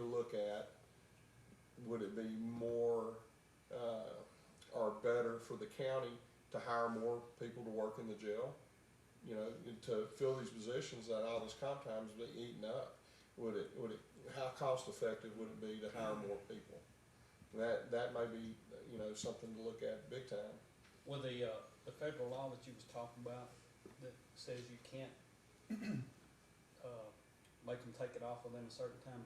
look at, would it be more, uh, or better for the county to hire more people to work in the jail? You know, and to fill these positions that all this comp time's been eaten up? Would it, would it, how cost effective would it be to hire more people? That, that may be, you know, something to look at big time. Well, the, uh, the federal law that you was talking about, that says you can't, uh, make them take it off within a certain time,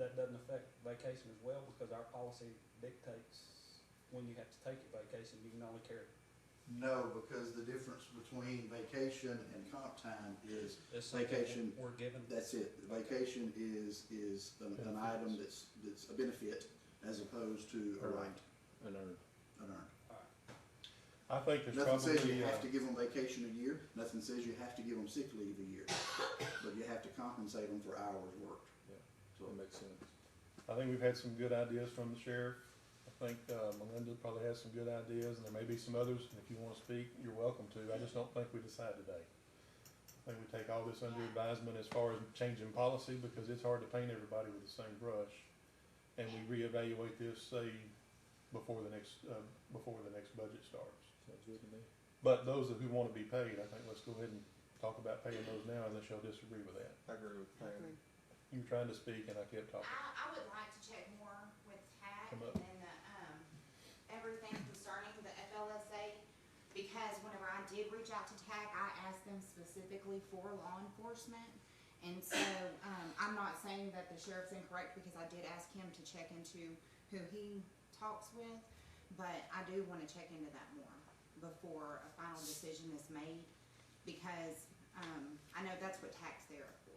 that doesn't affect vacation as well, because our policy dictates when you have to take your vacation, you can only carry, No, because the difference between vacation and comp time is, it's something Vacation. we're given. that's it. The Vacation is, is an, an item that's, that's a benefit as opposed to a right, and earn. an earned. Alright, I think there's Nothing says probably, you uh, have to give them vacation a year, nothing says you have to give them sick leave a year, but you have to compensate them for hours worked. Yeah. So, that makes sense. I think we've had some good ideas from the sheriff. I think, uh, Melinda probably has some good ideas, and there may be some others, and if you wanna speak, you're welcome to. I just don't think we decide today. I think we take all this under advisement as far as changing policy, because it's hard to paint everybody with the same brush. And we reevaluate this, say, before the next, uh, before the next budget starts. Sounds good to me. But those who wanna be paid, I think let's go ahead and talk about paying those now, unless y'all disagree with that. I agree with Pam. You were trying to speak and I kept talking. I, I would like to check more with TAC Come and up. the, um, everything concerning the FLSA. Because whenever I did reach out to TAC, I asked them specifically for law enforcement. And so, um, I'm not saying that the sheriff's incorrect because I did ask him to check into who he talks with. But I do wanna check into that more before a final decision is made. Because, um, I know that's what TAC's there for,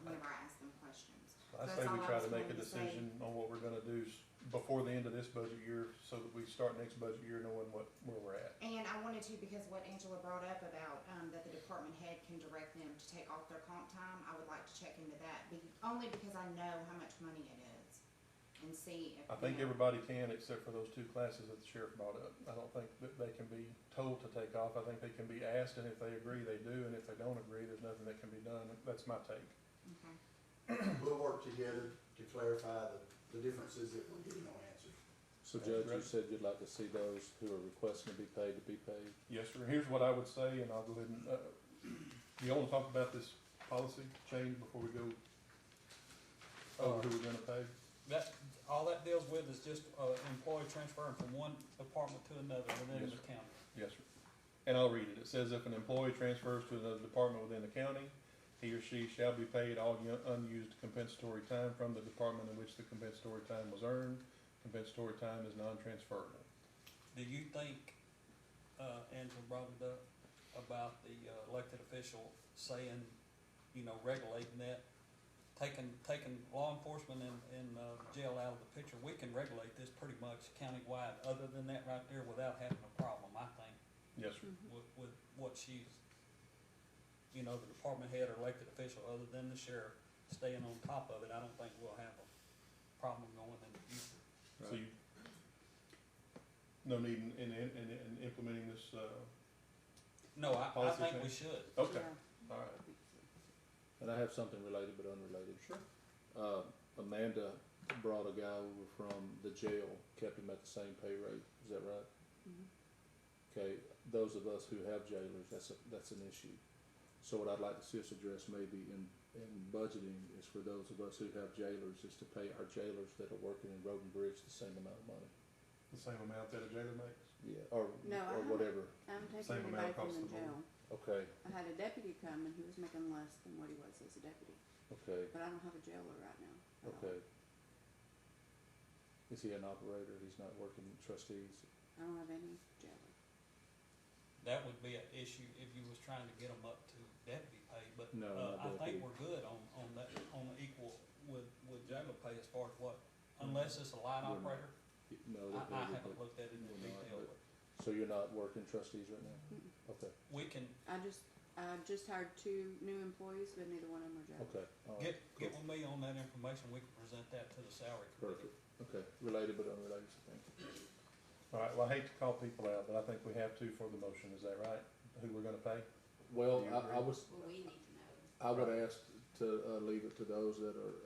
whenever I ask them questions. I That's say we all I try was to make a going to say. decision on what we're gonna do s- before the end of this budget year, so that we start next budget year knowing what, where we're at. And I wanted to, because what Angela brought up about, um, that the department head can direct them to take off their comp time, I would like to check into that, be, only because I know how much money it is. And see if. I think you know, everybody can, except for those two classes that the sheriff brought up. I don't think that they can be told to take off. I think they can be asked, and if they agree, they do, and if they don't agree, there's nothing that can be done. That's my take. Okay, We'll work together to clarify the, the differences that we're getting no answers. So That's Judge, you correct. said you'd like to see those who are requesting to be paid to be paid? Yes, sir. Here's what I would say, and I'll go ahead and, uh, do you wanna talk about this policy change before we go over who we're gonna pay? That, all that deals with is just, uh, employee transferring from one department to another within Yes, the county. Yes, sir. And I'll read it. It says if an employee transfers to another department within the county, he or she shall be paid all u- unused compensatory time from the department in which the compensatory time was earned. Compensatory time is non-transferable. Do you think, uh, Angela brought it up about the uh, elected official saying, you know, regulating that, taking, taking law enforcement and, and uh, jail out of the picture, we can regulate this pretty much countywide, other than that right there, without having a problem, I think, Yes, sir. with, with what she's, you know, the department head or elected official, other than the sheriff, staying on top of it, I don't think we'll have a problem going in the future. So you, no need in, in, in, in implementing this, uh, No, I, I Policy think we change. should. okay, all right. And I have something related but unrelated. Sure. Uh, Amanda brought a guy over from the jail, kept him at the same pay rate, is that right? Mm-hmm. Okay, those of us who have jailers, that's, a- that's an issue. So what I'd like to see us address maybe in, in budgeting is for those of us who have jailers, is to pay our jailers that are working in Roden Bridge the same amount of money. The same amount that a jailer makes? Yeah, or, No, I or don't. whatever, I'm Same taking amount everybody from across the the board. jail. okay, I had a deputy come and he was making less than what he was as a deputy, okay. but I don't have a jailer right now. at all. Okay. Is he an operator? He's not working trustees? I don't have any jailer. That would be an issue if you was trying to get them up to deputy pay, but, No, not uh, I deputy. think we're good on, on that, on the equal with, with jail pay as far as what, unless it's a line We're not. operator. Y- No, I, that I doesn't- haven't looked at it in we're not, detail, but- but So you're not working trustees right now? Mm-mm. Okay, we can I just, I just hired two new employees, but neither one of them are jailers. okay, all right, get, get with me on that information, we can present that to the salary committee. perfect, okay, related but unrelated, thank you. All right, well, I hate to call people out, but I think we have to for the motion, is that right? Who we're gonna pay? Well, Do you I, I agree? was, well, we need to know. I would ask to, uh, leave it to those that are